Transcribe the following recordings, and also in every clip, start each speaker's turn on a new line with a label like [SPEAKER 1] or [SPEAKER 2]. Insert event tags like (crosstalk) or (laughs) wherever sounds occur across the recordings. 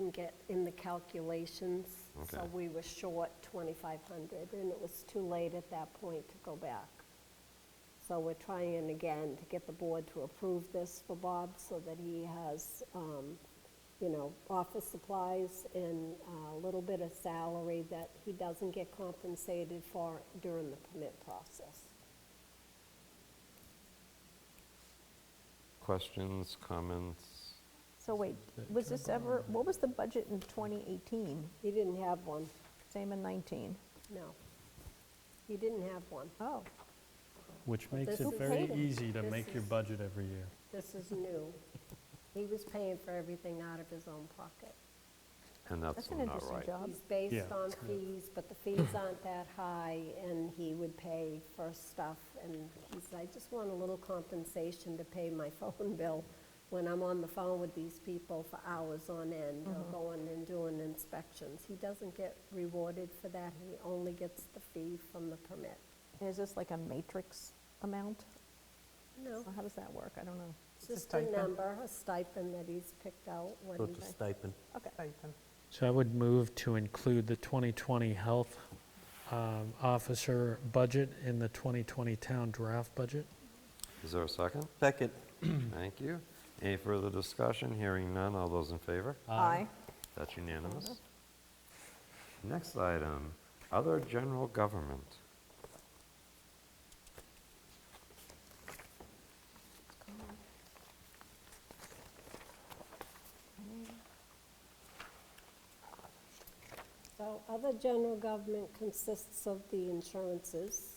[SPEAKER 1] didn't get in the calculations, so
[SPEAKER 2] Okay.
[SPEAKER 1] we were short 2,500, and it was too late at that point to go back. So we're trying again to get the board to approve this for Bob so that he has, um, you know, office supplies and uh, a little bit of salary that he doesn't get compensated for during the permit process.
[SPEAKER 2] Questions, comments?
[SPEAKER 3] So wait, was this ever, what was the budget in 2018?
[SPEAKER 1] He didn't have one,
[SPEAKER 3] Same in 19?
[SPEAKER 1] no. He didn't have one.
[SPEAKER 3] Oh,
[SPEAKER 4] Which makes
[SPEAKER 1] this
[SPEAKER 4] it
[SPEAKER 1] is-
[SPEAKER 4] very
[SPEAKER 1] Potato.
[SPEAKER 4] easy to
[SPEAKER 1] This
[SPEAKER 4] make your
[SPEAKER 1] is-
[SPEAKER 4] budget every year.
[SPEAKER 1] This is new. He was paying for everything out of his own pocket.
[SPEAKER 2] And that's
[SPEAKER 3] that's an
[SPEAKER 2] not
[SPEAKER 3] interesting
[SPEAKER 2] right.
[SPEAKER 3] job.
[SPEAKER 1] He's based
[SPEAKER 4] Yeah.
[SPEAKER 1] on fees, but the fees aren't that high, and he would pay for stuff. And he said, I just want a little compensation to pay my (laughs) phone bill when I'm on the phone with these people for hours on end, or going and doing inspections. He doesn't get rewarded for that, he only gets the fee from the permit.
[SPEAKER 3] Is this like a matrix amount?
[SPEAKER 1] No,
[SPEAKER 3] Or How does that work? I don't know.
[SPEAKER 1] it's just a number, a stipend that he's picked out when
[SPEAKER 5] So it's a
[SPEAKER 1] he
[SPEAKER 5] stipend.
[SPEAKER 3] Okay.
[SPEAKER 6] So I would move to include the 2020 health um, officer budget in the 2020 town draft budget.
[SPEAKER 2] Is there a second?
[SPEAKER 5] Second,
[SPEAKER 2] Thank you. Any further discussion? Hearing none. All those in favor?
[SPEAKER 3] Aye.
[SPEAKER 2] That's unanimous. Next item, other general government.
[SPEAKER 1] So other general government consists of the insurances,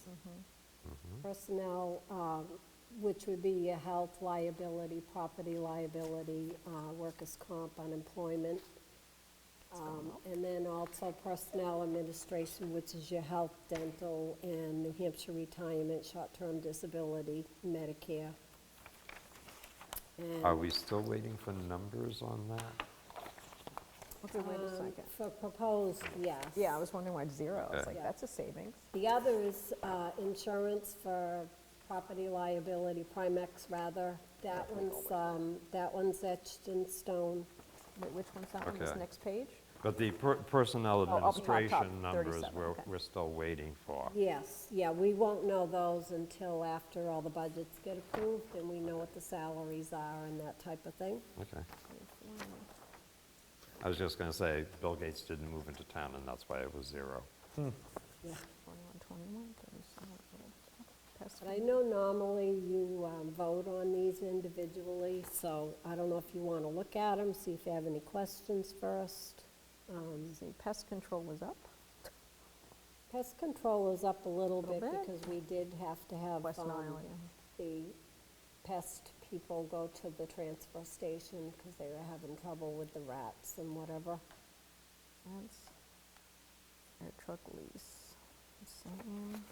[SPEAKER 1] personnel, um, which would be your health liability, property liability, uh, workers' comp, unemployment. Um, And then also personnel administration, which is your health, dental, and New Hampshire retirement, short-term disability, Medicare.
[SPEAKER 2] Are
[SPEAKER 1] And
[SPEAKER 2] we still waiting for numbers on that?
[SPEAKER 3] Okay, wait a
[SPEAKER 1] um,
[SPEAKER 3] second.
[SPEAKER 1] for proposed, yes.
[SPEAKER 3] Uh, Yeah, I was wondering why it's zero. It's
[SPEAKER 2] Okay.
[SPEAKER 3] like, that's a savings.
[SPEAKER 1] The other is uh, insurance for property liability, Primex rather. That one's, um, that one's etched in stone.
[SPEAKER 3] Wait, which one's that one? This
[SPEAKER 2] Okay.
[SPEAKER 3] next page?
[SPEAKER 2] But the per- personnel
[SPEAKER 3] up Oh, top,
[SPEAKER 2] administration numbers,
[SPEAKER 3] 37,
[SPEAKER 2] we're,
[SPEAKER 3] okay.
[SPEAKER 2] we're still waiting for.
[SPEAKER 1] Yes, yeah, we won't know those until after all the budgets get approved and we know what the salaries are and that type of thing.
[SPEAKER 2] Okay. I was just going to say, Bill Gates didn't move into town, and that's why it was zero.
[SPEAKER 3] 21, 21, 37, pest
[SPEAKER 1] But I know normally you um, vote on these individually, so I don't know if you want to look at them, see if you have any questions first. Um,
[SPEAKER 3] con- see, Pest control was up.
[SPEAKER 1] Pest control is up a little bit
[SPEAKER 3] bit.
[SPEAKER 1] because we did have to have
[SPEAKER 3] West
[SPEAKER 1] um,
[SPEAKER 3] Nile, yeah.
[SPEAKER 1] the pest people go to the transfer station because they were having trouble with the rats and whatever.
[SPEAKER 3] That's air truck lease. Same.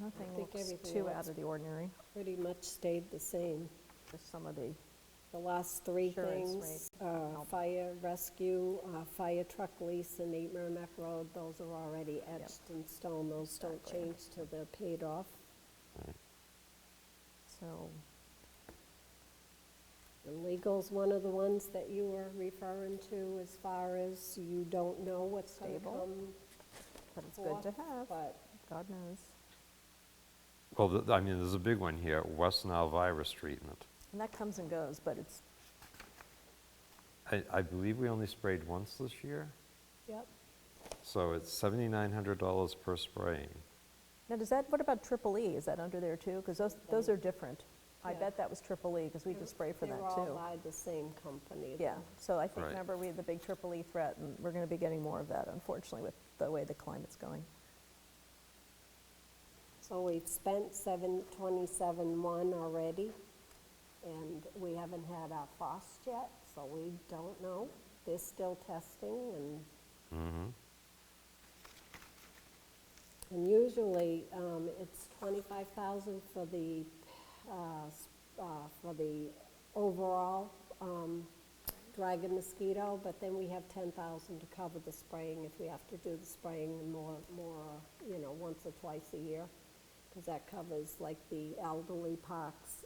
[SPEAKER 3] Nothing
[SPEAKER 1] think
[SPEAKER 3] looks
[SPEAKER 1] everything
[SPEAKER 3] too
[SPEAKER 1] looks
[SPEAKER 3] out of the ordinary,
[SPEAKER 1] Pretty much stayed the same.
[SPEAKER 3] just some of the,
[SPEAKER 1] The last three
[SPEAKER 3] Insurance
[SPEAKER 1] things, uh, fire rescue, uh, fire truck lease and Eight Merrimack Road, those are already etched in stone. Those don't
[SPEAKER 3] Exactly.
[SPEAKER 1] change till they're paid off.
[SPEAKER 3] so,
[SPEAKER 1] And legal's one of the ones that you were referring to as far as you don't know what's going to
[SPEAKER 3] Stable.
[SPEAKER 1] come
[SPEAKER 3] but it's
[SPEAKER 1] forth,
[SPEAKER 3] good to have,
[SPEAKER 1] But
[SPEAKER 3] God knows.
[SPEAKER 2] Well, th- I mean, there's a big one here, West Nile virus treatment.
[SPEAKER 3] And that comes and goes, but it's,
[SPEAKER 2] I, I believe we only sprayed once this year,
[SPEAKER 1] Yep,
[SPEAKER 2] so it's $7,900 per spraying.
[SPEAKER 3] now does that, what about triple E, is that under there too? Because those, those are different. I
[SPEAKER 1] Yeah.
[SPEAKER 3] bet that was triple E, because we could spray for
[SPEAKER 1] they're
[SPEAKER 3] that
[SPEAKER 1] all
[SPEAKER 3] too.
[SPEAKER 1] by the same company.
[SPEAKER 3] Yeah, so I think,
[SPEAKER 2] Right.
[SPEAKER 3] remember, we had the big triple E threat, and we're going to be getting more of that, unfortunately, with the way the climate's going.
[SPEAKER 1] So we've spent seven, twenty-seven one already, and we haven't had our frost yet, so we don't know. They're still testing and. And usually, um, it's twenty-five thousand for the, uh, s- uh, for the overall, um, dragon mosquito, but then we have ten thousand to cover the spraying if we have to do the spraying more, more, you know, once or twice a year. Because that covers like the elderly parks